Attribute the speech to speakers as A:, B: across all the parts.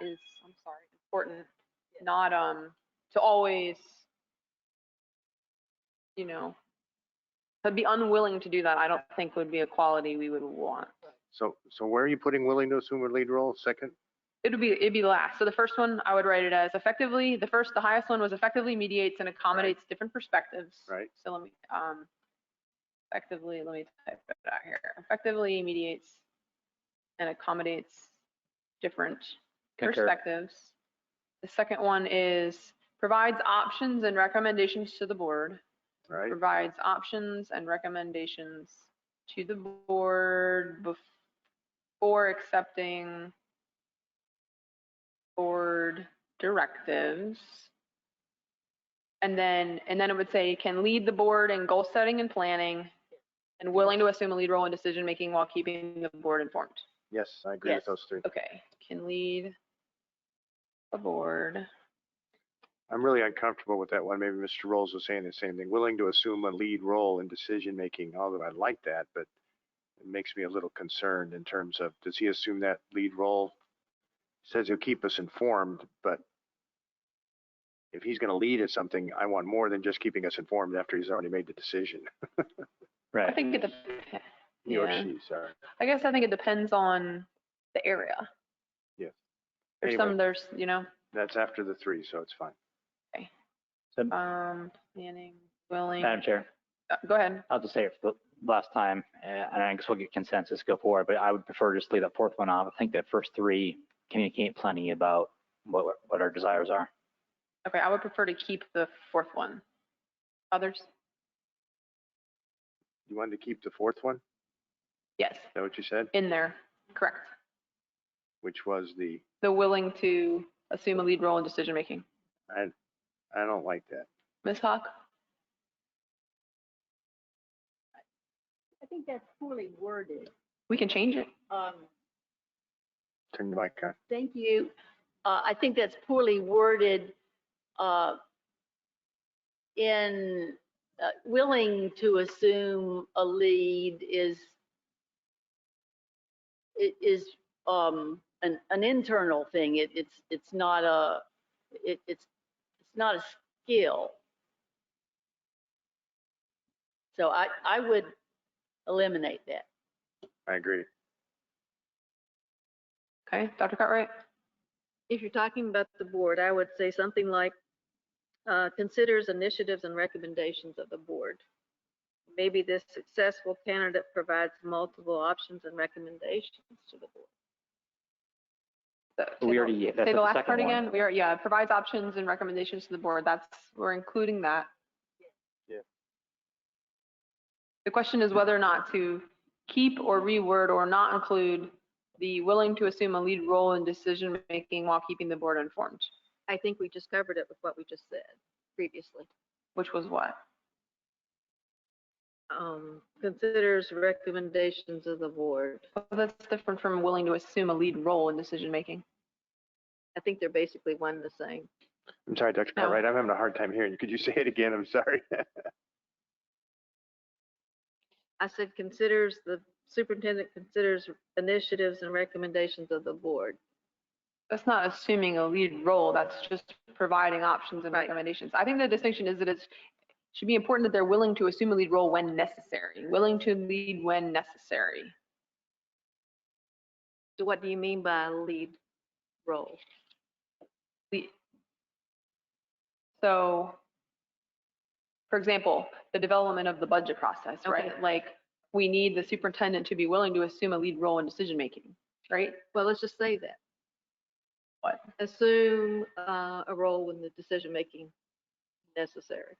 A: is, I'm sorry, important, not, um, to always, you know, to be unwilling to do that, I don't think would be a quality we would want.
B: So, so where are you putting willing to assume a lead role? Second?
A: It'd be, it'd be last. So the first one, I would write it as effectively, the first, the highest one was effectively mediates and accommodates different perspectives.
B: Right.
A: So let me, um, effectively, let me type it out here. Effectively mediates and accommodates different perspectives. The second one is provides options and recommendations to the board.
B: Right?
A: Provides options and recommendations to the board bef- before accepting board directives. And then, and then it would say can lead the board in goal setting and planning and willing to assume a lead role in decision making while keeping the board informed.
B: Yes, I agree with
A: Yes.
B: those three.
A: Okay, can lead the board.
B: I'm really uncomfortable with that one. Maybe Mr. Rolls was saying the same thing, willing to assume a lead role in decision-making, although I like that, but it makes me a little concerned in terms of, does he assume that lead role? Says he'll keep us informed, but if he's going to lead at something, I want more than just keeping us informed after he's already made the decision.
A: I
C: Right.
A: think it, dep-
B: He or
A: yeah,
B: she, sorry.
A: I guess I think it depends on the area.
B: Yes.
A: There's some,
B: Anyway,
A: there's, you know,
B: that's after the three, so it's fine.
C: So,
A: um, planning, willing,
C: Madam Chair,
A: uh, go ahead.
C: I'll just say it for the last time, uh, and I guess we'll get consensus go forward, but I would prefer just leave that fourth one off. I think that first three communicate plenty about what, what our desires are.
A: Okay, I would prefer to keep the fourth one. Others?
B: You wanted to keep the fourth one? Is
A: Yes,
B: that what you said?
A: in there, correct.
B: Which was the,
A: The willing to assume a lead role in decision making.
B: I, I don't like that.
A: Ms. Hawk?
D: I think that's poorly worded.
A: We can change it.
D: Um,
B: Turn the mic on.
D: Thank you. Uh, I think that's poorly worded uh, in uh, willing to assume a lead is i- is um, an an internal thing. It- It's it's not a it- it's it's not a skill. So I I would eliminate that.
B: I agree.
A: Okay, Dr. Cartwright?
E: if you're talking about the board, I would say something like, uh, considers initiatives and recommendations of the board. Maybe this successful candidate provides multiple options and recommendations to the board.
A: The-
C: But We already, that's
A: Say
C: at
A: the
C: the
A: last part
C: second one.
A: again. We are, yeah, provides options and recommendations to the board. That's, we're including that.
B: Yeah.
A: The question is whether or not to keep or reword or not include the willing to assume a lead role in decision-making while keeping the board informed,
E: I think we just covered it with what we just said previously.
A: which was what?
E: Um, considers recommendations of the board.
A: Well, That's different from willing to assume a lead role in decision-making.
E: I think they're basically one and the same.
B: I'm sorry, Dr.
A: No.
B: Cartwright, I'm having a hard time hearing you. Could you say it again? I'm sorry.
E: I said considers, the superintendent considers initiatives and recommendations of the board.
A: That's not assuming a lead role, that's just providing options and
E: Right.
A: recommendations. I think the distinction is that it's, should be important that they're willing to assume a lead role when necessary, willing to lead when necessary.
E: So what do you mean by lead role?
A: The- So, for example, the development of the budget process, right?
E: Okay.
A: Like, we need the superintendent to be willing to assume a lead role in decision-making, right?
E: Well, let's just say that.
A: What?
E: Assume uh, a role in the decision-making necessary.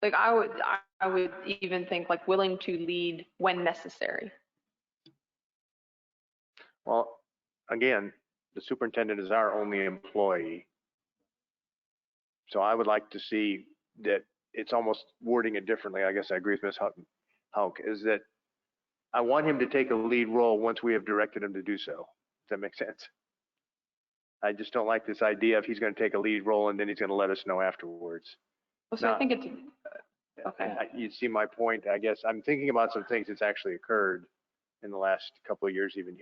A: Like, I would, I- I would even think like willing to lead when necessary.
B: Well, again, the superintendent is our only employee. So I would like to see that it's almost wording it differently. I guess I agree with Ms. Houghton. Hauk is that I want him to take a lead role once we have directed him to do so. Does that make sense? I just don't like this idea of he's going to take a lead role and then he's going to let us know afterwards.
A: Well, So I
B: No.
A: think it's, okay.
B: I- You see my point, I guess. I'm thinking about some things that's actually occurred in the last couple of years, even